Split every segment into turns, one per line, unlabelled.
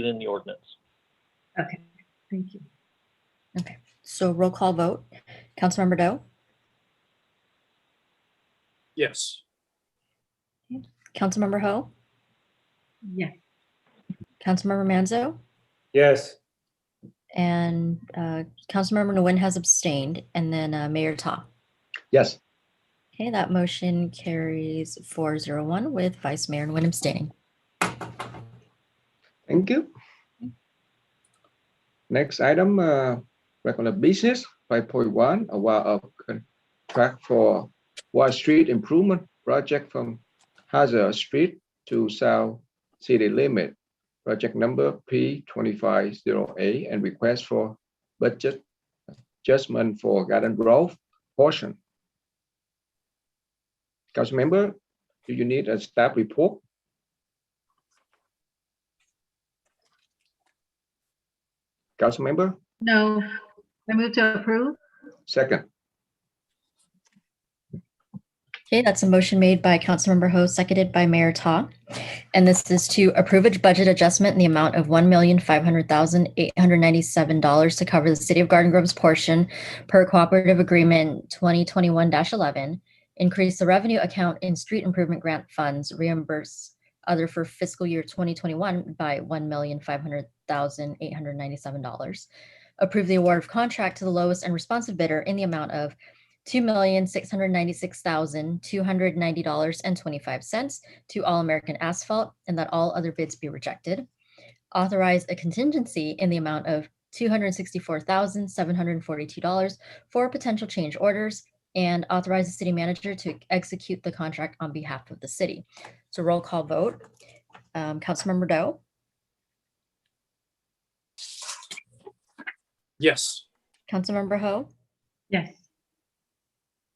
within the ordinance.
Okay, thank you.
So roll call vote. Councilmember Doe,
Yes.
Councilmember Ho,
Yes,
Councilmember Manzo,
Yes.
and uh, Councilmember Nguyen has abstained, and then uh, Mayor Ta.
Yes,
Okay, that motion carries four zero one with Vice Mayor Nguyen abstaining.
thank you. Next item, uh, regular business, five point one, a while of contract for Wall Street Improvement Project from Hazard Street to South City Limit. Project number P twenty-five zero eight and request for budget adjustment for Garden Grove portion. Council member, do you need a staff report? Council member?
no, I move to approve.
Second,
Okay, that's a motion made by Councilmember Ho, seconded by Mayor Ta. And this is to approve a budget adjustment in the amount of one million five hundred thousand eight hundred ninety-seven dollars to cover the City of Garden Grove's portion per cooperative agreement twenty twenty-one eleven. Increase the revenue account in street improvement grant funds, reimburse other for fiscal year twenty twenty-one by one million five hundred thousand eight hundred ninety-seven dollars. Approve the award of contract to the lowest and responsive bidder in the amount of two million six hundred ninety-six thousand two hundred ninety dollars and twenty-five cents to All American Asphalt, and that all other bids be rejected. Authorize a contingency in the amount of two hundred sixty-four thousand seven hundred forty-two dollars for potential change orders, and authorize the city manager to execute the contract on behalf of the city. So roll call vote. Um, Councilmember Doe,
Yes.
Councilmember Ho,
Yes,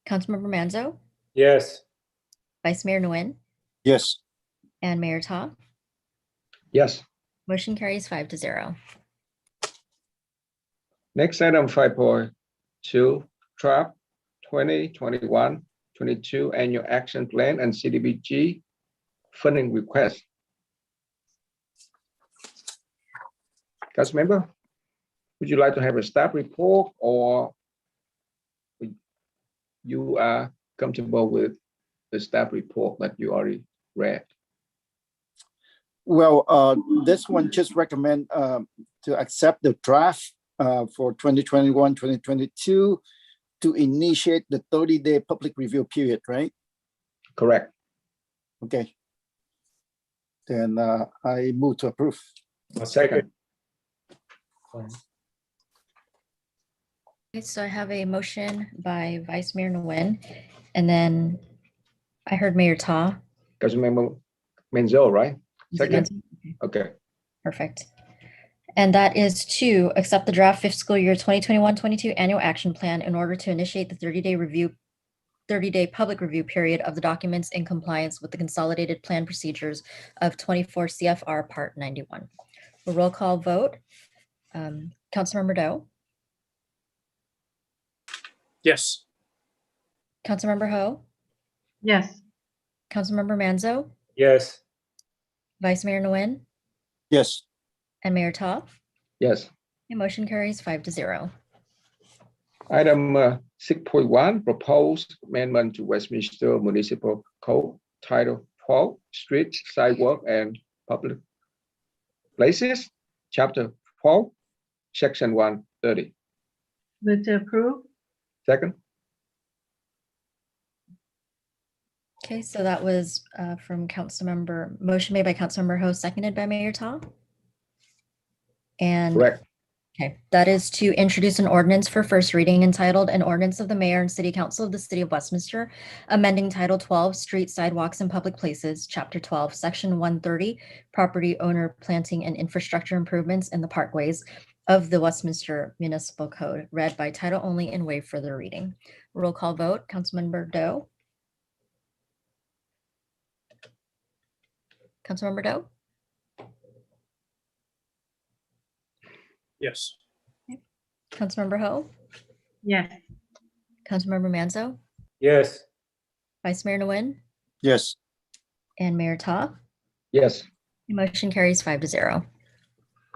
Councilmember Manzo,
Yes.
Vice Mayor Nguyen,
Yes.
and Mayor Ta.
yes.
Motion carries five to zero.
Next item, five point two, trap 2021-22 annual action plan and CDBG funding request. Council member, would you like to have a staff report or would- you are comfortable with the staff report that you already read?
Well, uh, this one just recommend uh, to accept the draft uh, for 2021, 2022 to initiate the 30-day public review period, right?
Correct.
Okay. Then uh, I move to approve.
Second,
Okay, so I have a motion by Vice Mayor Nguyen, and then I heard Mayor Ta.
Council member Menzel, right?
Is it
Second.
Menzel?
Okay,
Perfect. And that is to accept the draft fiscal year 2021-22 annual action plan in order to initiate the 30-day review, 30-day public review period of the documents in compliance with the consolidated plan procedures of 24 CFR Part 91. A Roll call vote. Um, Councilmember Doe,
Yes.
Councilmember Ho,
yes,
Councilmember Manzo,
Yes.
Vice Mayor Nguyen,
Yes,
and Mayor Ta.
yes.
The motion carries five to zero.
Item uh, six point one, proposed amendment to Westminster Municipal Code, Title twelve, Streets, Sidewalk, and Public Places, Chapter twelve, Section one thirty.
move to approve.
Second,
Okay, so that was uh, from Councilmember, motion made by Councilmember Ho, seconded by Mayor Ta. And,
correct,
okay, that is to introduce an ordinance for first reading entitled An Ordinance of the Mayor and City Council of the City of Westminster, amending Title 12, Street Sidewalks and Public Places, Chapter 12, Section 130, Property Owner Planting and Infrastructure Improvements in the Parkways of the Westminster Municipal Code, read by title only and waive further reading. Roll call vote, Councilmember Doe? Councilmember Doe?
Yes.
Councilmember Ho?
Yes,
Councilmember Manzo?
Yes.
Vice Mayor Nguyen?
yes,
And Mayor Ta?
yes.
The motion carries five to zero.